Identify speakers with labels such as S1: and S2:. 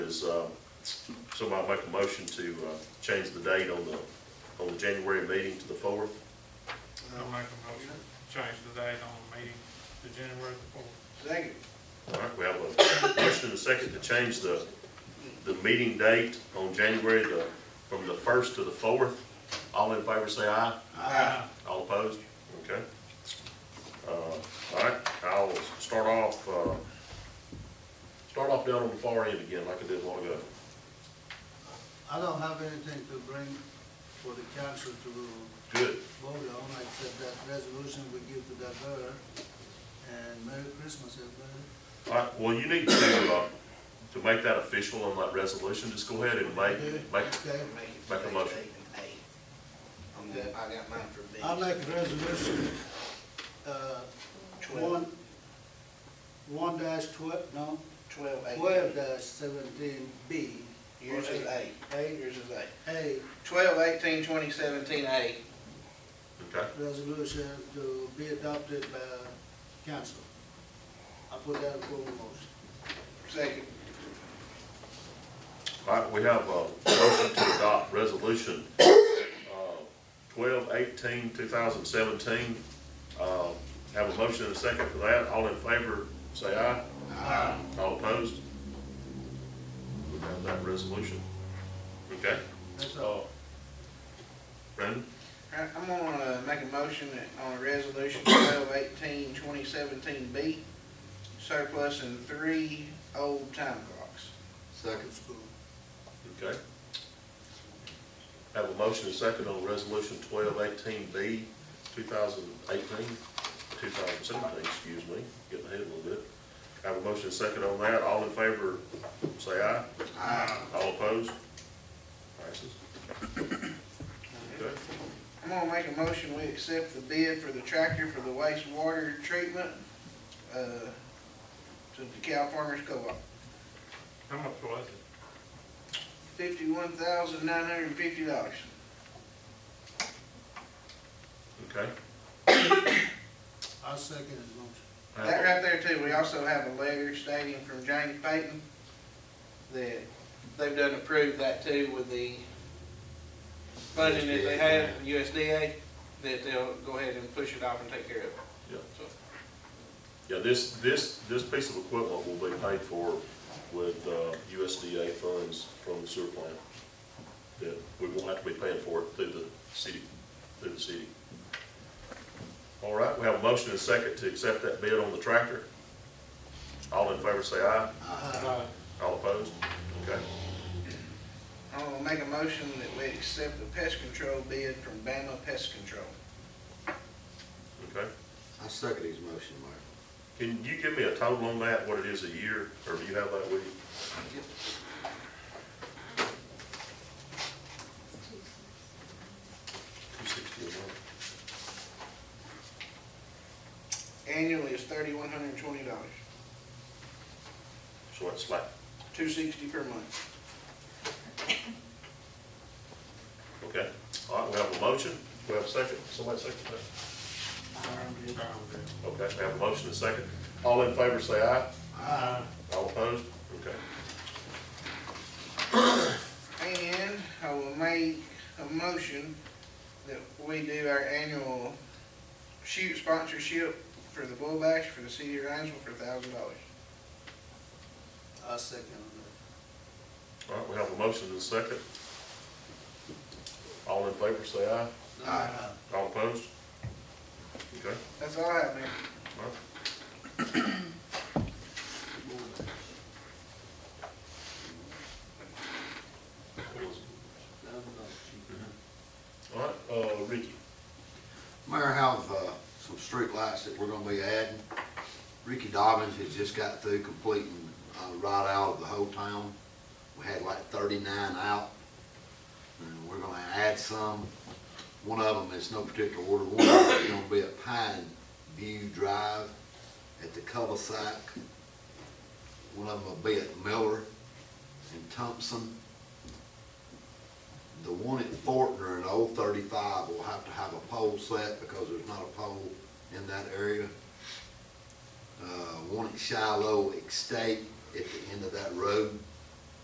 S1: is, uh, somebody make a motion to, uh, change the date on the, on the January meeting to the fourth.
S2: I'll make a motion, change the date on the meeting to January the fourth.
S3: Second.
S1: All right, we have a motion and a second to change the, the meeting date on January the, from the first to the fourth. All in favor say aye.
S3: Aye.
S1: All opposed? Okay. Uh, all right, I'll start off, uh, start off down on the far end again like I did a while ago.
S4: I don't have anything to bring for the council to
S1: Good.
S4: vote on, except that resolution we give to that girl. And Merry Christmas, everybody.
S1: All right, well, you need to, uh, to make that official on that resolution, just go ahead and make, make,
S4: Okay,
S1: Make a motion.
S3: I'm good, I got mine for B.
S4: I make a resolution, uh, one, one dash twelve, no,
S3: Twelve A.
S4: twelve dash seventeen B.
S3: Yours is A.
S4: A,
S3: Yours is A.
S4: A
S3: Twelve eighteen twenty seventeen A.
S1: okay?
S4: resolution to be adopted by council. I put that in form of motion.
S3: Second.
S1: All right, we have a motion to adopt resolution, uh, twelve eighteen, two thousand seventeen. Uh, have a motion and a second for that. All in favor, say aye. Aye. All opposed? We have that resolution. Okay?
S4: That's all.
S1: Uh, Brandon,
S3: All right, I'm gonna uh, make a motion on resolution twelve eighteen twenty seventeen B, surplusing three old time clocks.
S4: Second. School.
S1: okay? Have a motion and a second on resolution twelve eighteen B, two thousand eighteen, two thousand seventeen, excuse me, getting ahead a little bit. Have a motion and a second on that. All in favor, say aye. Aye. All opposed? Passes. Okay.
S3: I'm gonna make a motion, we accept the bid for the tractor for the wastewater treatment, uh, to the Cal Farmers Co-op.
S2: How much was it?
S3: Fifty-one thousand nine hundred and fifty dollars.
S1: Okay.
S4: I second his motion.
S1: Have
S3: That
S1: a-
S3: right there too, we also have a letter stating from James Payton that they've done approved that too with the funding that they have, USDA, that they'll go ahead and push it off and take care of it.
S1: Yeah.
S3: So,
S1: Yeah, this, this, this piece of equipment will be paid for with uh, USDA funds from the sewer plant. That we won't have to be paying for it through the city, through the city. All right, we have a motion and a second to accept that bid on the tractor. All in favor say aye.
S4: Aye.
S1: All opposed? Okay.
S3: I'm gonna make a motion that we accept the pest control bid from Bama Pest Control.
S1: Okay.
S5: I second his motion, Mayor.
S1: Can you give me a total on that, what it is a year, or do you have that with you? Two sixty a month.
S3: Annually is thirty-one hundred and twenty dollars,
S1: So it's like,
S3: two sixty per month.
S1: okay. All right, we have a motion. We have a second. Somebody second that. Okay, we have a motion and a second. All in favor, say aye.
S4: Aye.
S1: All opposed? Okay.
S3: And I will make a motion that we do our annual shoot sponsorship for the bull bash for the city of Rhinesville for a thousand dollars.
S4: I second that.
S1: All right, we have a motion and a second. All in favor, say aye.
S4: Aye.
S1: All opposed? Okay.
S3: That's all I have, Mayor.
S1: all right. All right, uh, Ricky.
S5: Mayor, I have, uh, some street lights that we're gonna be adding. Ricky Dobbins has just got through completing, uh, right out of the whole town. We had like thirty-nine out, and we're gonna add some. One of them is no particular order, one of them is gonna be at Pine View Drive at the cul-de-sac. One of them will be at Miller and Thompson. The one at Fortner and Old Thirty-Five will have to have a pole set because there's not a pole in that area. Uh, one at Shiloh Estate at the end of that road